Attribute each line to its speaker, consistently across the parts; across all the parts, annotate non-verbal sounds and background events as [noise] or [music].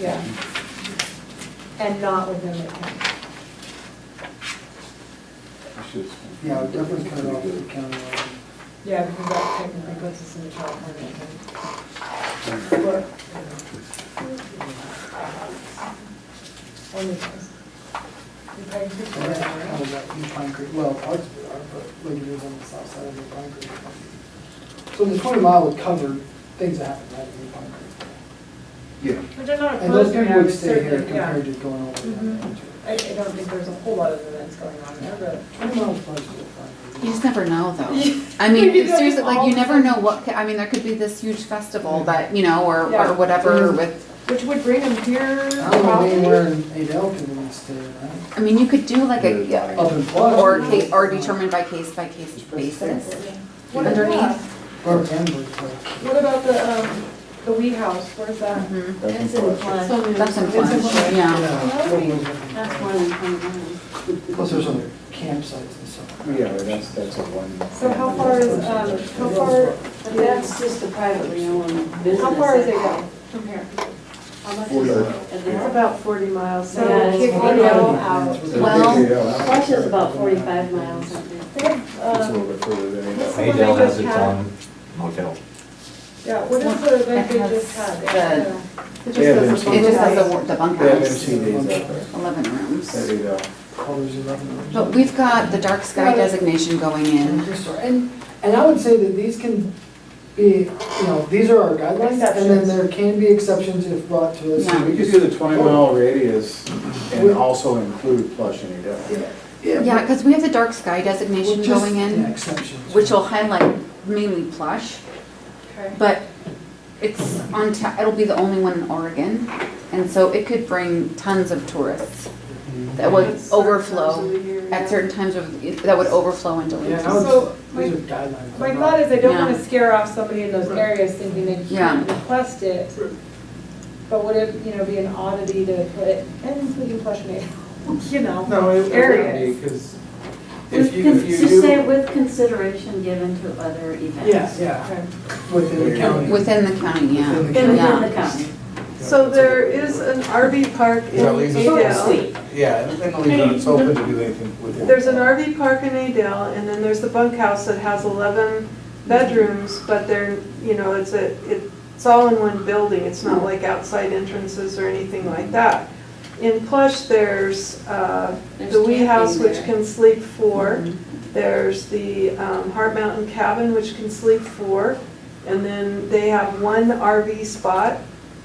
Speaker 1: Yeah. And not within the county.
Speaker 2: Yeah, it definitely cut off the county
Speaker 1: Yeah, because that technically puts us in the California. thing. But, Only us. You pay
Speaker 2: So that's kind
Speaker 1: attention,
Speaker 2: of that New Pine Creek, well, parts of it are, but like it is on the south side of New Pine Creek. So the twenty mile would cover things that happen right in New Pine Creek.
Speaker 3: Yeah,
Speaker 1: But they're not
Speaker 2: And those
Speaker 1: opposed to
Speaker 2: people would
Speaker 1: having
Speaker 2: stay here
Speaker 1: certain, yeah.
Speaker 2: compared to going over there.
Speaker 1: Mhm. I, I don't think there's a whole lot of events going on there, but.
Speaker 2: Twenty miles is probably still fine.
Speaker 4: [laughs] You just never know,
Speaker 1: Yeah.
Speaker 4: though. I mean,
Speaker 1: Maybe they'll
Speaker 4: seriously, like, you
Speaker 1: all-
Speaker 4: never know what, ca- I mean, there could be this huge festival that, you know, or,
Speaker 1: Yeah.
Speaker 4: or whatever with,
Speaker 1: Which would bring them here
Speaker 2: I don't know anywhere
Speaker 1: probably.
Speaker 2: in Adel can really stay, right?
Speaker 4: I mean, you could do like a, yeah,
Speaker 2: Up in Florida.
Speaker 4: or case, or determined by case by case basis.
Speaker 1: What about-
Speaker 4: underneath.
Speaker 2: Or Denver, but
Speaker 1: What about the, um, the Wee House, where's that?
Speaker 2: Mm-hmm.
Speaker 4: Mhm.
Speaker 3: that's
Speaker 5: That's
Speaker 3: in
Speaker 5: in
Speaker 3: Florida.
Speaker 5: Florida.
Speaker 4: That's in Florida,
Speaker 1: Florida.
Speaker 4: yeah.
Speaker 2: yeah.
Speaker 5: That's one in Florida.
Speaker 2: Plus there's other campsites and stuff.
Speaker 3: yeah, that's, that's a one.
Speaker 1: So how far is, um,
Speaker 6: uh,
Speaker 1: how far,
Speaker 5: But that's just a privately owned business.
Speaker 1: how far is it go from here?
Speaker 5: How much
Speaker 3: Forty
Speaker 5: is it?
Speaker 3: miles.
Speaker 5: And It's about forty miles.
Speaker 1: So
Speaker 5: Yeah, it's
Speaker 1: Cape
Speaker 5: forty
Speaker 1: Canaveral
Speaker 5: miles.
Speaker 1: out.
Speaker 4: Well-
Speaker 6: uh,
Speaker 5: Russia's about forty-five miles, I think.
Speaker 1: They have,
Speaker 3: It's a
Speaker 1: um,
Speaker 3: little bit further than
Speaker 6: uh,
Speaker 1: what's
Speaker 3: that.
Speaker 1: the one they
Speaker 7: Adel has
Speaker 1: just
Speaker 7: its
Speaker 1: had?
Speaker 7: own hotel.
Speaker 1: Yeah, what is the event they
Speaker 4: It has
Speaker 1: just had?
Speaker 4: the-
Speaker 1: Yeah.
Speaker 4: It just
Speaker 3: Yeah, they're
Speaker 4: has, it
Speaker 3: somewhere.
Speaker 4: just has the wor- the
Speaker 3: They have
Speaker 4: bunkhouse,
Speaker 3: MC days out there.
Speaker 4: eleven
Speaker 3: At
Speaker 4: rooms.
Speaker 8: uh,
Speaker 3: Adel.
Speaker 2: Colors eleven.
Speaker 4: But we've got the dark sky
Speaker 2: Yeah.
Speaker 4: designation going in.
Speaker 2: And, and I would say that these can be, you know, these are our guidelines, and then
Speaker 1: Exceptions.
Speaker 2: there can be exceptions if brought to us.
Speaker 4: Yeah.
Speaker 3: We could do the twenty mile radius and also include Flush and Adel.
Speaker 4: Yeah, because we have the dark sky designation
Speaker 2: Well, just-
Speaker 4: going
Speaker 2: yeah,
Speaker 4: in,
Speaker 2: Exceptions.
Speaker 4: which will highlight mainly plush.
Speaker 1: Okay.
Speaker 4: But it's on, ta- it'll be the only one in Oregon, and so it could bring tons of tourists that would
Speaker 5: It's certain times
Speaker 4: overflow
Speaker 5: of the year, yeah.
Speaker 4: at certain times of, that would overflow into
Speaker 2: Yeah, and I
Speaker 4: Lincoln.
Speaker 2: would-
Speaker 1: So, my-
Speaker 2: These are guidelines.
Speaker 1: My
Speaker 2: they're
Speaker 1: thought
Speaker 2: not-
Speaker 1: is I don't
Speaker 4: Yeah.
Speaker 1: want to scare off somebody in those areas thinking they can't
Speaker 4: Yeah.
Speaker 1: request it. But would it, you know, be an oddity to put, and including flush and anal, [laughs] you know?
Speaker 3: No, it
Speaker 1: Areas.
Speaker 3: because
Speaker 5: With con- Just say with consideration given to other
Speaker 2: Yeah,
Speaker 5: events.
Speaker 2: yeah,
Speaker 1: Okay.
Speaker 2: within the county.
Speaker 4: Within the county,
Speaker 2: Within
Speaker 4: yeah.
Speaker 2: the
Speaker 5: In
Speaker 4: Yeah.
Speaker 5: the county.
Speaker 6: So there is an RV park in
Speaker 8: Yeah, leaves us
Speaker 6: Adel.
Speaker 8: Yeah, and then leave it, it's open to do anything with it.
Speaker 6: There's an RV park in Adel, and then there's the bunkhouse that has 11 bedrooms, but they're, you know, it's a, it's all in one building. It's not like outside entrances or anything like that. In Plush, there's uh,
Speaker 5: There's
Speaker 6: the Wee House,
Speaker 5: camping
Speaker 6: which
Speaker 5: there.
Speaker 6: can sleep four.
Speaker 4: Mm-hmm.
Speaker 6: There's the um, Heart Mountain Cabin, which can sleep four. And then they have one RV spot.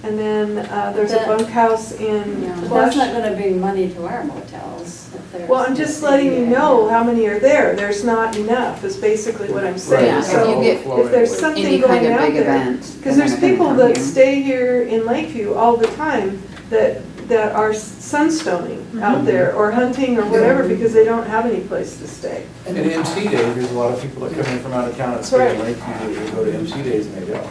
Speaker 6: And then uh, there's a
Speaker 5: That-
Speaker 6: bunkhouse in
Speaker 4: Yeah.
Speaker 5: But that's
Speaker 6: Plush.
Speaker 5: not gonna bring money to our motels if there's.
Speaker 6: Well, I'm just letting you know how many are there. There's not enough, is basically what I'm
Speaker 4: Yeah,
Speaker 6: saying.
Speaker 4: if
Speaker 6: So
Speaker 4: you get-
Speaker 6: if there's
Speaker 4: Any kind
Speaker 6: something going
Speaker 4: of
Speaker 6: out
Speaker 4: big
Speaker 6: there,
Speaker 4: event.
Speaker 6: because
Speaker 4: they're
Speaker 6: there's
Speaker 4: gonna
Speaker 6: people
Speaker 4: come
Speaker 6: that
Speaker 4: here.
Speaker 6: stay here in Lakeview all the time that, that are sunstoning out
Speaker 5: Mm-hmm.
Speaker 6: there or hunting or whatever because they don't have any place to stay.
Speaker 8: And in MC Day, there's a lot of people that come in from out of town and stay in Lakeview, they go to MC Days and they go.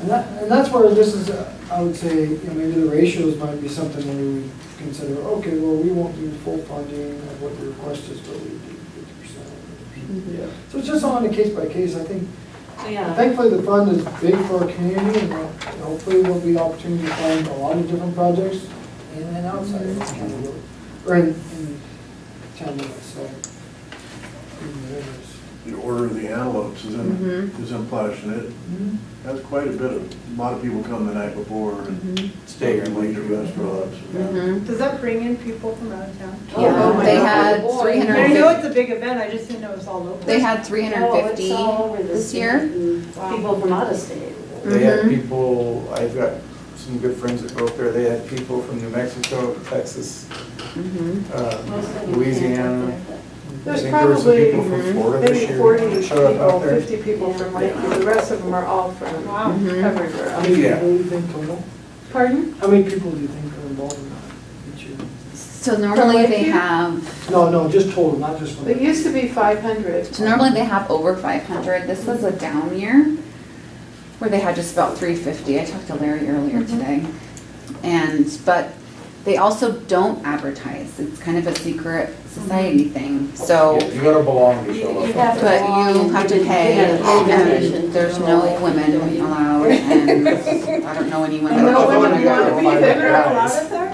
Speaker 2: And that, and that's where this is, uh, I would say, you know, maybe the ratios might be something where we would consider, okay, well, we won't do full funding of what the request is, but we do fifty percent.
Speaker 3: Yeah.
Speaker 1: Mm-hmm.
Speaker 2: So it's just on a case by case, I think,
Speaker 5: Yeah.
Speaker 2: thankfully, the fund is big for our community, and we'll- and hopefully there'll be opportunity to fund a lot of different projects in and outside of this county, or in, in town limits, so. in the areas.
Speaker 9: The Order of the Antelopes is in,
Speaker 4: Mhm.
Speaker 9: is in Plush, and it has quite a bit of, a lot of people come the night before and
Speaker 8: Stay here in
Speaker 9: late to
Speaker 8: Lakeview.
Speaker 9: restaurants.
Speaker 4: Mhm.
Speaker 1: Does that bring in people from out of town?
Speaker 4: Yeah,
Speaker 5: Oh, my
Speaker 4: they
Speaker 5: God.
Speaker 4: had three hundred
Speaker 1: I
Speaker 4: and
Speaker 1: know it's
Speaker 4: fifty,
Speaker 1: a big event, I just didn't know it was all local.
Speaker 4: they had three hundred
Speaker 5: Oh,
Speaker 4: and
Speaker 5: it's all over
Speaker 4: fifty this year.
Speaker 5: and People from out of state.
Speaker 8: They had
Speaker 4: Mhm.
Speaker 6: Mm-hmm.
Speaker 8: people, I've got some good friends that go up there, they had people from New Mexico, Texas,
Speaker 4: Mhm.
Speaker 8: uh,
Speaker 5: Most of them can't
Speaker 8: Louisiana.
Speaker 5: work there,
Speaker 8: I
Speaker 6: There's
Speaker 8: think there were some
Speaker 6: probably
Speaker 8: people from Florida this
Speaker 6: maybe
Speaker 8: year
Speaker 6: 40
Speaker 8: that
Speaker 6: people,
Speaker 8: showed up out there.
Speaker 6: 50 people from Lakeview. The rest of them are all from
Speaker 1: Wow.
Speaker 8: Mm-hmm.
Speaker 4: Mhm.
Speaker 6: everywhere
Speaker 2: How
Speaker 6: else.
Speaker 2: many
Speaker 8: Yeah.
Speaker 2: people do you think total?
Speaker 6: Pardon?
Speaker 2: How many people do you think are involved in that each year?
Speaker 4: So normally they
Speaker 6: Lakeview?
Speaker 4: have,
Speaker 2: No, no, just total, not just from.
Speaker 6: It used to be 500.
Speaker 4: so normally they have over five hundred, this was a down year where they had just about three fifty, I talked to Larry earlier today. And, but They also don't advertise. It's kind of a secret society thing, so.
Speaker 3: You gotta belong to show
Speaker 5: You
Speaker 3: up.
Speaker 5: have to
Speaker 4: But you have to pay,
Speaker 5: Yeah, pay donation.
Speaker 4: and there's no women allowed, and I don't know anyone
Speaker 6: And
Speaker 4: that
Speaker 6: no
Speaker 4: would
Speaker 6: one
Speaker 4: wanna
Speaker 6: would want to be
Speaker 4: go.
Speaker 6: there, allowed it there?